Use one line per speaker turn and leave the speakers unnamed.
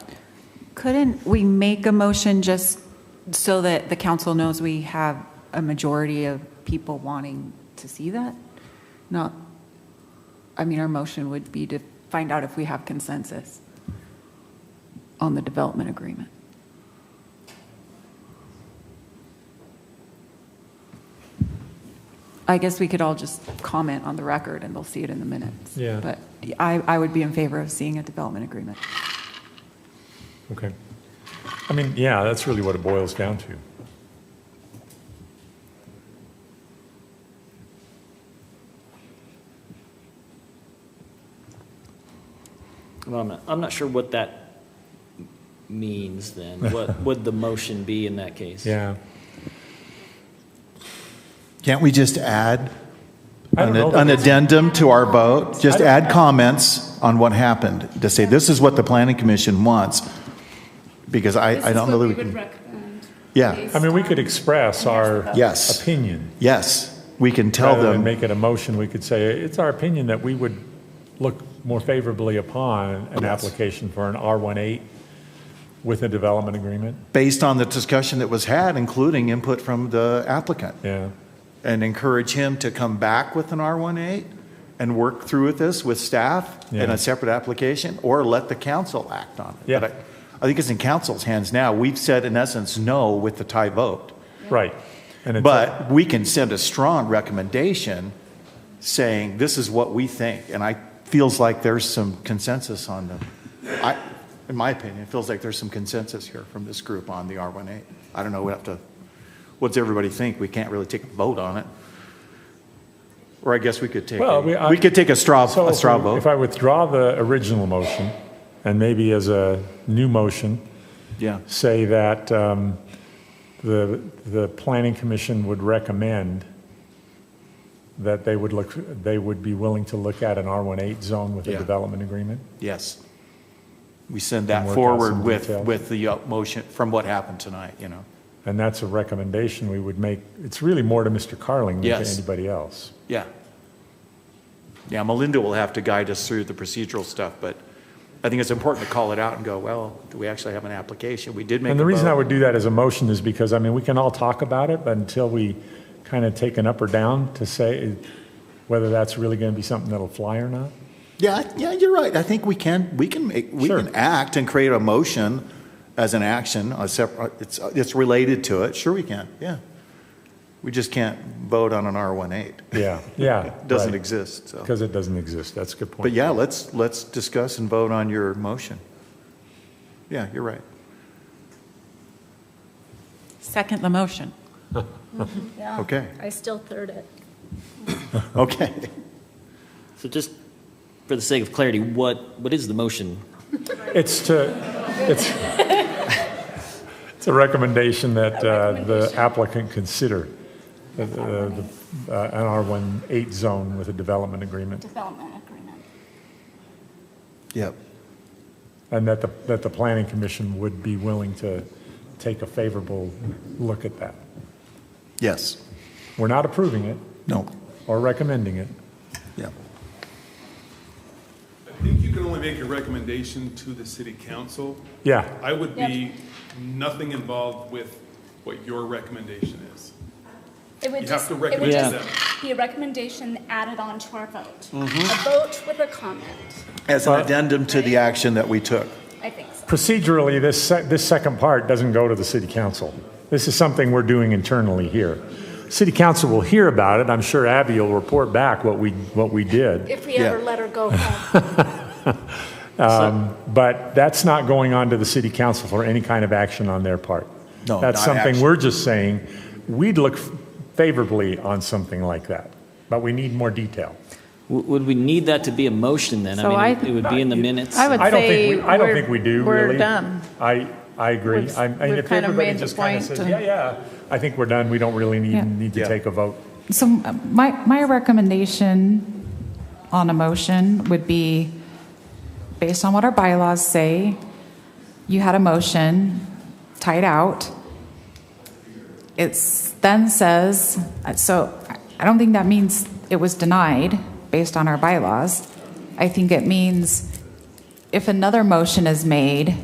Couldn't we make a motion just so that the council knows we have a majority of people wanting to see that? Not, I mean, our motion would be to find out if we have consensus on the development agreement. I guess we could all just comment on the record and they'll see it in the minutes.
Yeah.
But I, I would be in favor of seeing a development agreement.
Okay. I mean, yeah, that's really what it boils down to.
Well, I'm not, I'm not sure what that means then. What would the motion be in that case?
Yeah.
Can't we just add
I don't
an
know that
an
it's-
addendum to our vote?
I
Just
don't-
add comments on what happened, to say, this is what the planning commission wants, because I, I don't know that we can.
recommend. um,
Yeah,
I mean, we could express our
Yes.
opinion.
yes, we can tell
Rather than
them,
make it a motion, we could say, it's our opinion that we would look more favorably upon an
Yes.
application for an R18 with a development agreement.
based on the discussion that was had, including input from the applicant,
Yeah.
and encourage him to come back with an R18 and work through with this with staff in
Yeah.
a separate application, or let the council act on it.
Yeah.
But I- I think it's in council's hands now. We've said, in essence, no with the tie vote.
Right. And it's-
But we can send a strong recommendation saying, this is what we think. And I, feels like there's some consensus on them. I, in my opinion, it feels like there's some consensus here from this group on the R18. I don't know, we have to, what's everybody think? We can't really take a vote on it. Or I guess we could take, a-
Well, we- I-
we could take a straw,
So
a
if
straw
we- If
vote.
I withdraw the original motion, and maybe as a new motion,
Yeah,
say that um, the, the planning commission would recommend that they would look, they would be willing to look at an R18 zone with a
Yeah.
development agreement?
yes. We send
And
that
work out
forward
some
with,
detail.
with the uh, motion from what happened tonight, you know?
And that's a recommendation we would make. It's really more to Mr. Carling than to
Yes.
anybody else.
Yeah. Yeah, Melinda will have to guide us through the procedural stuff, but I think it's important to call it out and go, well, do we actually have an application? We did make a
And the reason I
vote.
would do that as a motion is because, I mean, we can all talk about it, but until we kind of take an up or down to say whether that's really going to be something that'll fly or not.
Yeah, yeah, you're right. I think we can, we can, make we
Sure.
can act and create a motion as an action, a separate, it's, uh, it's related to it. Sure we can, yeah. We just can't vote on an R18.
Yeah, yeah.
Doesn't exist, so.
Because it doesn't exist. That's a good point.
But yeah, let's, let's discuss and vote on your motion. Yeah, you're right.
Second the motion.
Yeah.
Okay.
I still third it.
Okay.
So just for the sake of clarity, what, what is the motion?
It's to, it's, it's a recommendation that uh, the applicant consider the- the- the, uh, an R18 zone with a development agreement,
Development agreement.
Yep.
and that the, that the planning commission would be willing to take a favorable look at that.
Yes.
We're not approving it
No.
or recommending it.
Yeah.
I think you can only make a recommendation to the city council.
Yeah,
I would be nothing involved with what your recommendation is.
It would
You
just, it
have to
would
recommend
just be a recommendation added on to our vote.
Mm-hmm.
A vote with a comment,
As an addendum to the action that we took.
I think so.
procedurally, this, se- this second part doesn't go to the city council. This is something we're doing internally here. City council will hear about it. I'm sure Abby will report back what we, what we did.
If we ever
Yeah.
let her go home.
But that's not going on to the city council for any kind of action on their part.
No,
That's
not
something
action.
we're just saying, we'd look favorably on something like that, but we need more detail.
W- Would we need that to be a motion then?
So
I
I-
mean, it would be in the minutes.
I would
I don't
say
think, we- I don't
we're-
think we do,
we're
really.
done.
I, I agree.
We've-
I mean,
we've
if
kind of
everybody
made the
just kind of
point
says,
and-
yeah, yeah, I think we're done, we don't really
Yeah.
need, need to
Yeah.
take a vote.
So my, my recommendation on a motion would be, based on what our bylaws say, you had a motion, tied out. It's, then says, uh, so I don't think that means it was denied based on our bylaws. I think it means if another motion is made